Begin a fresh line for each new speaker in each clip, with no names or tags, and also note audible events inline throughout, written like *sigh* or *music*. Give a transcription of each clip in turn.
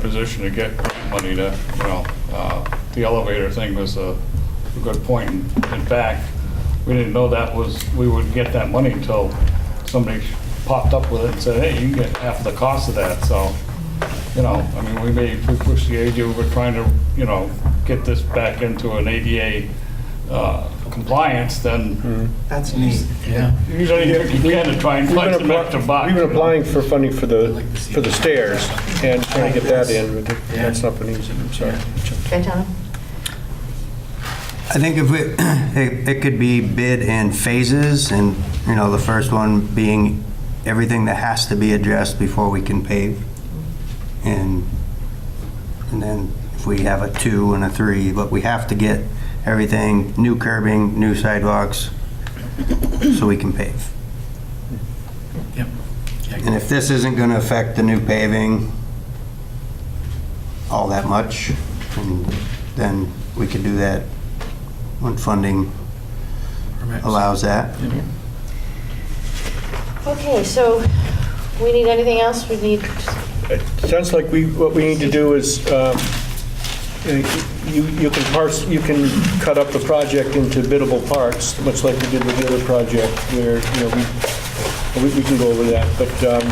position to get grant money to, you know, uh, the elevator thing was a a good point. In fact, we didn't know that was, we would get that money until somebody popped up with it and said, hey, you can get half the cost of that, so, you know, I mean, we may, if we push the ADA, we're trying to, you know, get this back into an ADA uh, compliance, then
That's neat.
use anything you can to try and
Mm-hmm. We've
find
been
some extra
apply-
bucks.
we've
you
been
know?
applying for funding for the, for the stairs and trying to get that in, but that's not been easy, I'm sorry.
Gaetano?
I think if we, *clears throat* it it could be bid in phases, and, you know, the first one being everything that has to be addressed before we can pave. And, and then if we have a two and a three, but we have to get everything, new curbing, new sidewalks, so we can pave.
Yep.
And if this isn't going to affect the new paving all that much, and then we could do that when funding allows that.
Okay, so we need anything else? We need,
It sounds like we, what we need to do is, um, uh, you, you can parse, you can cut up the project into biddable parts, much like we did with the other project, where, you know, we, we- we can go over that, but um,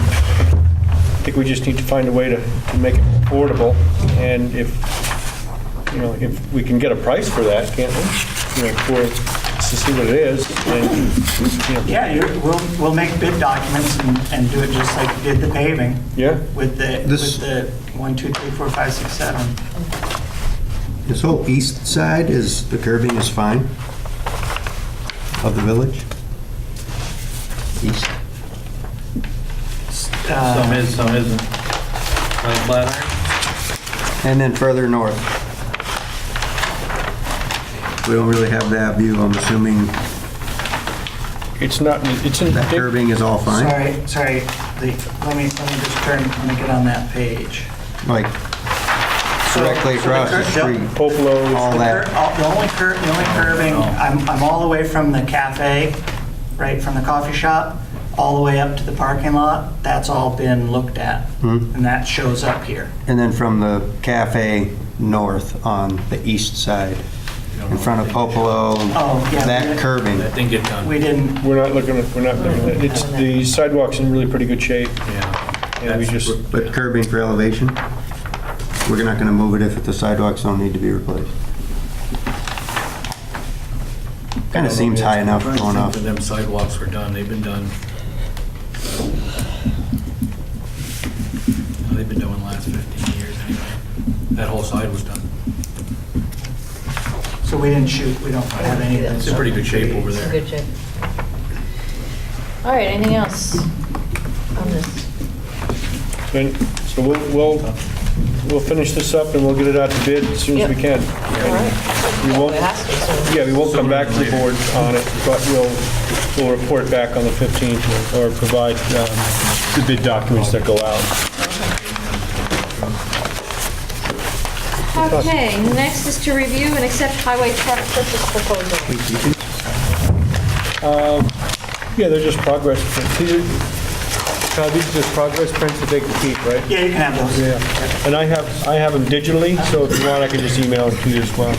I think we just need to find a way to to make it affordable, and if, you know, if we can get a price for that, can't we? You know, for, to see what it is, and, you know,
Yeah, you, we'll, we'll make bid documents and, and do it just like we did the paving.
Yeah.
With the,
This-
with the one, two, three, four, five, six, seven.
This whole east side is, the curving is fine of the village? East?
Uh,
Some is, some isn't. Like Flatiron?
And then further north. We don't really have that view, I'm assuming
it's not, it's in,
that curving is all fine?
Sorry, sorry, the, let me, let me just turn, let me get on that page.
Like
So-
directly
so
across the
cur- yep,
street,
Popelo's,
all
The cur-
that?
all- the only cur, the only curving, I'm, I'm all the way from the cafe, right, from the coffee shop, all the way up to the parking lot, that's all been looked at. And that shows up here.
And then from the cafe north on the east side, in front of Popolo,
Oh, yeah.
that curving.
That didn't get done.
We didn't,
We're not looking, at- we're not looking, at- it's, the sidewalk's in really pretty good shape,
Yeah.
and we just,
But curbing for elevation, we're not going to move it if the sidewalks don't need to be replaced. Kind of seems high enough
Trying to
going
think
off.
that Them sidewalks were done, they've been done. They've been doing last 15 years anyway. That whole side was done.
so we didn't shoot, we don't have any of that
It's in pretty good shape over there.
good job. All right, anything else on this?
and so we'll, we'll, we'll finish this up and we'll get it out to bid as soon as we can.
All right.
We
Well,
won't,
it has to, so-
yeah, we won't come back to the board on it, but we'll, we'll report back on the 15th or provide um, the bid documents that go out.
Okay, next is to review and accept highway truck purchase proposal.
Yeah, they're just progress, prints. these are, Todd, these are just progress prints that they can keep, right?
Yeah, you can have those.
Yeah, and I have, I have them digitally, so if you want, I can just email them to you as well.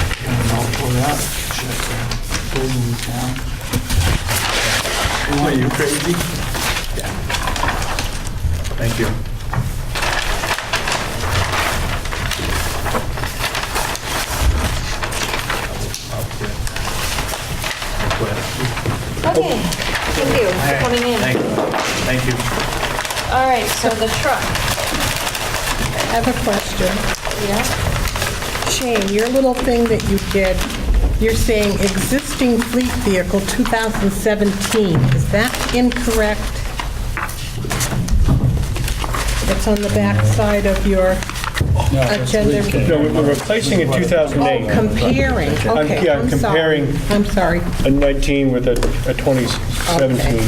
And I'll pull it up. Check the buildings down.
Are you crazy? Thank you.
Oh,
Okay, thank you for coming in.
Thank you. Thank you.
All right, so the truck,
I have a question.
yeah?
Shane, your little thing that you did, you're saying existing fleet vehicle 2017. Is that incorrect? It's on the back side of your agenda.
No, we- we're replacing a
Oh,
2008,
comparing,
I'm-
okay,
yeah, I'm
I'm sorry.
comparing-
I'm sorry.
a 19 with a a 2017.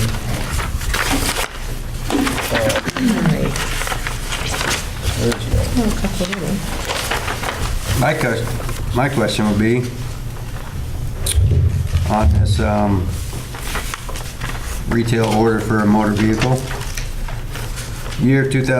Okay. All right.
My question, my question would be, on this um, retail order for a motor vehicle, year 2000.